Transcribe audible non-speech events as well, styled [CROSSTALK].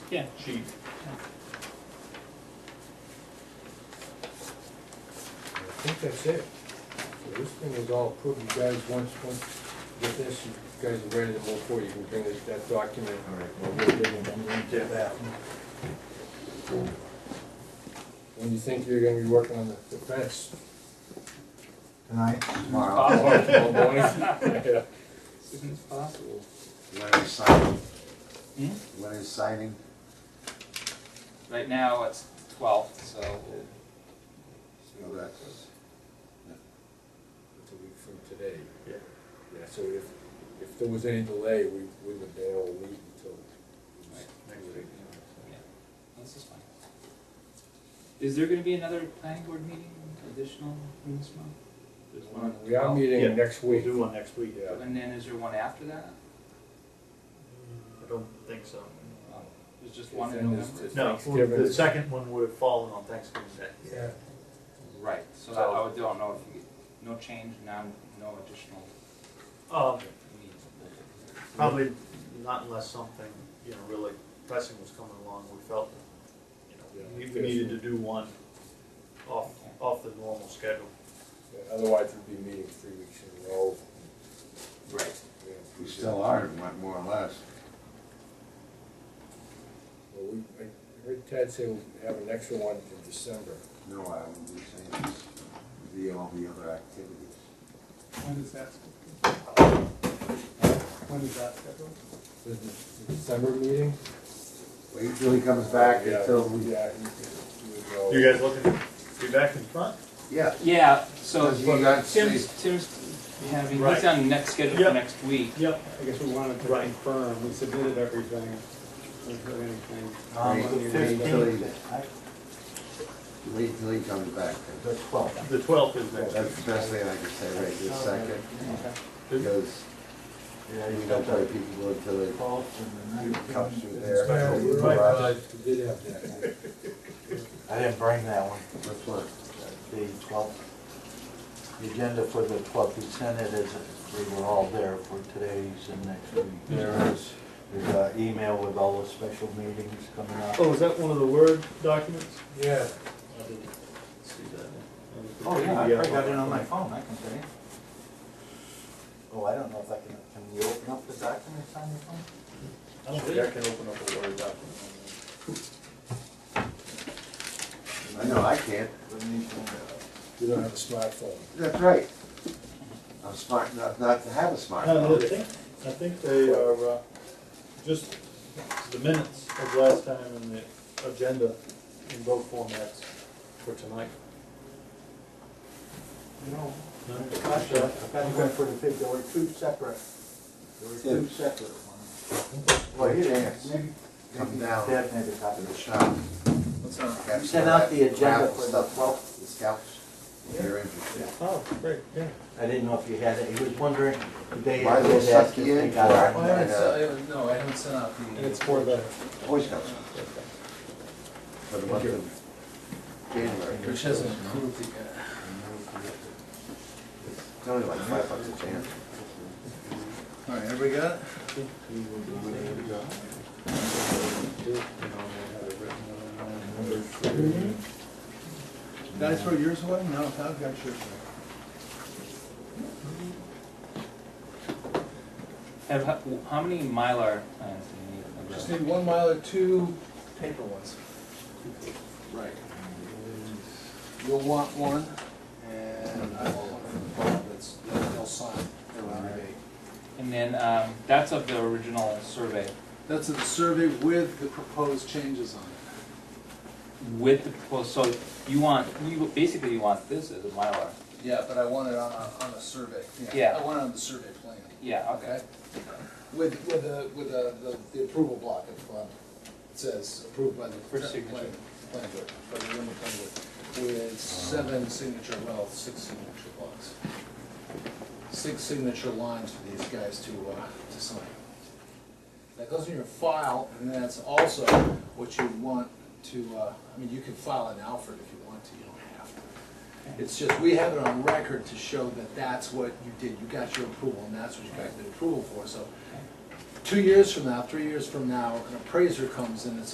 Yeah. sheet. I think that's it. So this thing is all approved, you guys, once, once you get this, you guys are ready to move forward, you can bring this, that document. All right. Or we'll bring it, I'm gonna do that. When do you think you're gonna be working on the the fence? Oh, Tonight, tomorrow, Tomorrow morning? [LAUGHS] Yeah. Isn't it possible? Larry's signing, Hmm? Larry's signing, Right now, it's twelfth, so so that's, It's a week from today. Yeah. Yeah, so if, if there was any delay, we wouldn't have been able to leave until. Right. Yeah, this is fine. Is there gonna be another planning board meeting, additional in this month? There's one on the We are 12th. meeting next week. Do one next week. Yeah. Oh, And then is there one after that? I don't think so. Oh, There's just one in Then there's- November? No, Thanksgiving. the second one would have fallen on Thanksgiving Day. Yeah. Right, so I I would- don't know if you, no change, none, no additional Um, meeting. probably not unless something, you know, really pressing was coming along, we felt, you know, we Yeah. needed to do one off, off the normal schedule. Yeah, Otherwise, we'd be meeting three weeks in a row. Right. Yeah. we still are, more- more or less. Well, we, I heard Ted say we have an extra one in December. No, I wouldn't be saying this, It'd be all the other activities. When is that? When is that scheduled? The the December meeting? Wait till he comes back Yeah, until we, Yeah. you can do it all. You guys looking to be back in front? yeah, Yeah, so Because you got Tim's, Tim's having, Right. he's on next schedule Yep. for next week. Yep. I guess we wanted to Right. confirm, we submitted everything, we heard anything. Um, We didn't hear wait anything. till he, wait till he comes back. The twelfth. The twelfth is next. That's the best thing I can say right this second, because Yeah, we you don't got play the people until they twelfth and the Cups nineteenth. through there. Yeah, Special you're rush. right, we did have that. I didn't bring that one, Which one? the twelfth. The agenda for the twelfth, we sent it as, we were all there for today's and next week. There is, there's an email with all the special meetings coming up. Oh, is that one of the Word documents? Yeah. I didn't see that. Oh, yeah, I probably got it on my phone, I can tell you. Oh, I don't know if I can, can you open up the documents on your phone? I don't think I can open up a Word document. I know I can't. You don't have a smartphone. That's right. I'm smart enough not to have No, a I smartphone. think, I think they are, uh, just the minutes of last time and the agenda in both formats for tonight. No. No? Gosh, I thought you went for the fifth, there were two separate, there were two separate ones. Well, you dance. Maybe- Come maybe down. Dad made a copy To of the it. shop. You sent out the agenda for the twelfth. The scouts, if you're interested. Oh, great, yeah. I didn't know if you had it, he was wondering, the day Why I they was suck asked you in if they for? got our and, uh, no, I haven't sent out the. And it's for the, Boy Scouts. For the month of January. Which hasn't approved it yet. It's only like five bucks a chance. All right, everybody got it? Guys, throw yours away? No, I've got yours away. Have, how- how many Mylar plans do you need? need one mile or two paper ones. Right. You'll want one, and I will, that's, they'll sign around the date. And then, um, that's of the original survey That's a survey with the proposed changes on it. with the proposed, so you want, you, basically you want this as a Mylar. Yeah, but I want it on, a- on a survey. Yeah. I want it on the survey plan, Yeah, okay. okay? With, with the, with the, the- the approval block at the bottom. It says approved by the. For signature. plan- Plan board, by the Wyndham Plan Board, with seven signature, well, six signature blocks. Six signature lines for these guys to, uh, to sign. That goes in your file, and that's also what you want to, uh, I mean, you can file an Alfred if you want to, you don't have to. It's just, we have it on record to show that that's what you did, you got your approval, and that's what you got the approval for, so. Two years from now, three years from now, an appraiser comes in and says,